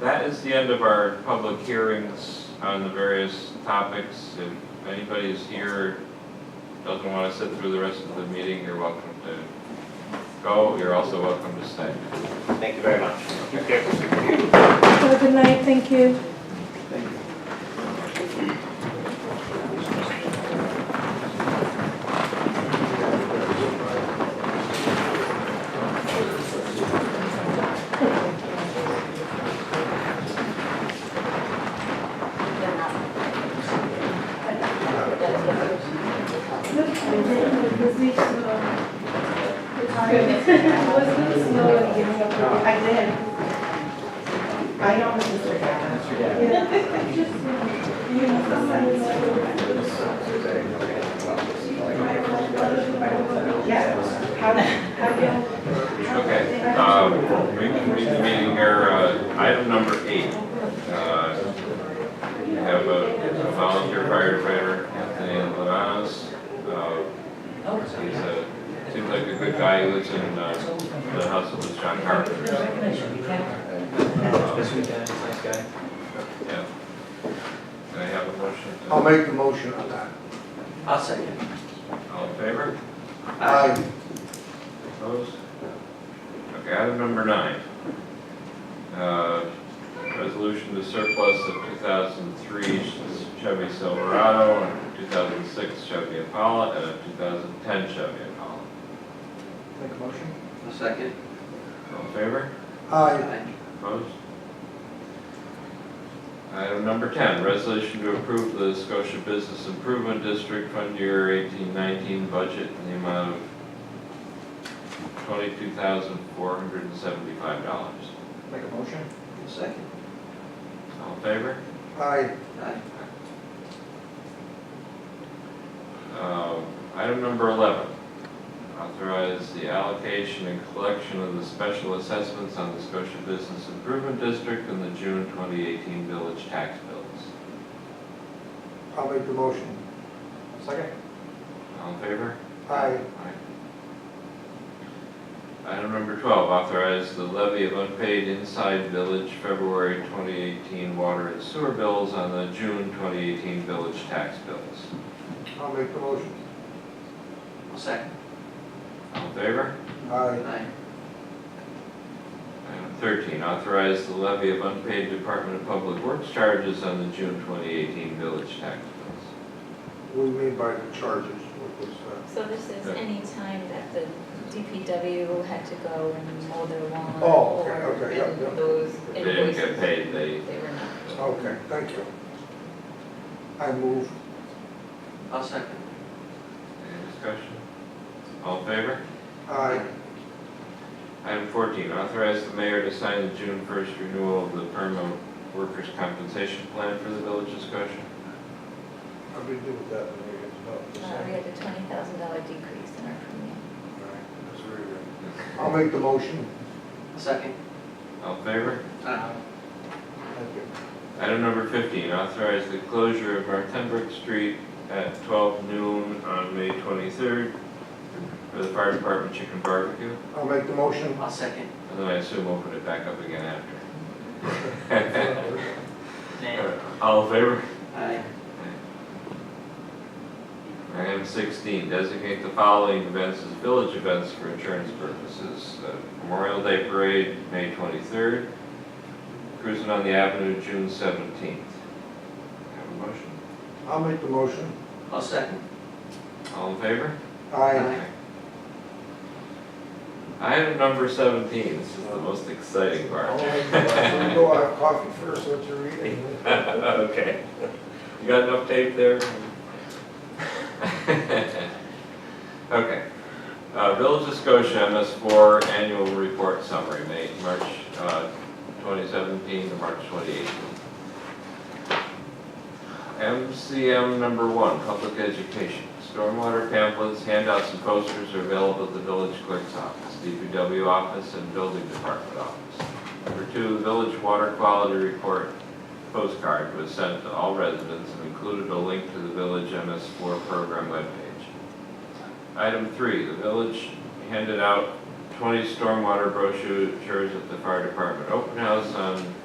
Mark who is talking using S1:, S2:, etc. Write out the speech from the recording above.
S1: That is the end of our public hearings on the various topics. If anybody is here, doesn't want to sit through the rest of the meeting, you're welcome to go. You're also welcome to stay.
S2: Thank you very much.
S3: Have a good night, thank you.
S4: I did. I know Mr. Gavin. Yes. How, how
S1: Okay, um, we can read the meeting here, uh, item number eight. Uh, We have a a volunteer firefighter, Anthony Lanas. Uh, He's a, seems like a good guy, He lives in uh, the house of the John Carpenter.
S5: This weekend, nice guy.
S1: Yeah. Can I have a motion? to-
S6: I'll make the motion on that.
S5: I'll second.
S1: All in favor?
S6: Aye.
S1: Opposed? Okay, item number nine. Uh, Resolution to surplus of 2003 Chevy Silverado, and a 2006 Chevy Impala, and a 2010 Chevy Impala.
S6: Make a motion?
S5: I'll second.
S1: All in favor?
S6: Aye.
S1: Opposed? Item number 10, resolution to approve the Scotia Business Improvement District Fund Year 1819 budget in the amount of $22,475.
S6: Make a motion?
S5: I'll second.
S1: All in favor?
S6: Aye.
S5: Aye.
S1: Um, Item number 11, authorize the allocation and collection of the special assessments on the Scotia Business Improvement District and the June 2018 village tax bills.
S6: I'll make the motion. Second?
S1: All in favor?
S6: Aye.
S1: Item number 12, authorize the levy of unpaid inside village February 2018 water and sewer bills on the June 2018 village tax bills.
S6: I'll make the motion.
S5: I'll second.
S1: All in favor?
S6: Aye.
S5: Aye.
S1: Item 13, authorize the levy of unpaid Department of Public Works charges on the June 2018 village tax bills.
S6: What do you mean by the charges? uh, What was that?
S7: So this is any time that the DPW had to go and mow their lawn.
S6: Oh, okay,
S7: or
S6: okay, yeah, yeah.
S7: Those
S1: If They didn't get
S7: invoices,
S1: paid, they,
S7: they were not.
S6: Okay, thank you. I move.
S5: I'll second.
S1: any discussion? All in favor?
S6: Aye.
S1: Item 14, authorize the mayor to sign the June 1st renewal of the permanent workers' compensation plan for the village discussion.
S6: I'll be doing that when we get to the
S7: Uh, We
S6: second.
S7: had a twenty thousand dollar decrease in our premium.
S6: All right, that's very good. I'll make the motion.
S5: I'll second.
S1: All in favor?
S5: Aye.
S6: Thank you.
S1: Item number 15, authorize the closure of Martenbrook Street at 12 noon on May 23rd for the fire department chicken barbecue,
S6: I'll make the motion.
S5: I'll second.
S1: and then I assume open it back up again after. All in favor?
S5: Aye.
S1: Item 16, designate the following events as village events for insurance purposes. Uh, Memorial Day Parade, May 23rd. Cruising on the Avenue, June 17th. Have a motion?
S6: I'll make the motion.
S5: I'll second.
S1: All in favor?
S6: Aye.
S1: Item number 17, this is the most exciting
S6: I'll
S1: part.
S6: make the motion. We Go out of coffee first, let you read it.
S1: Okay. You got enough tape there? Okay. Uh, Village of Scotia, MS4 Annual Report Summary, May, March uh, 2017 to March 2018. MCM number one, public education. Stormwater pamphlets, handouts, and posters are available at the village clerk's office, DPW office, and building department office. Number two, village water quality report postcard was sent to all residents and included a link to the village MS4 program webpage. Item three, the village handed out 20 stormwater brochures at the fire department open house on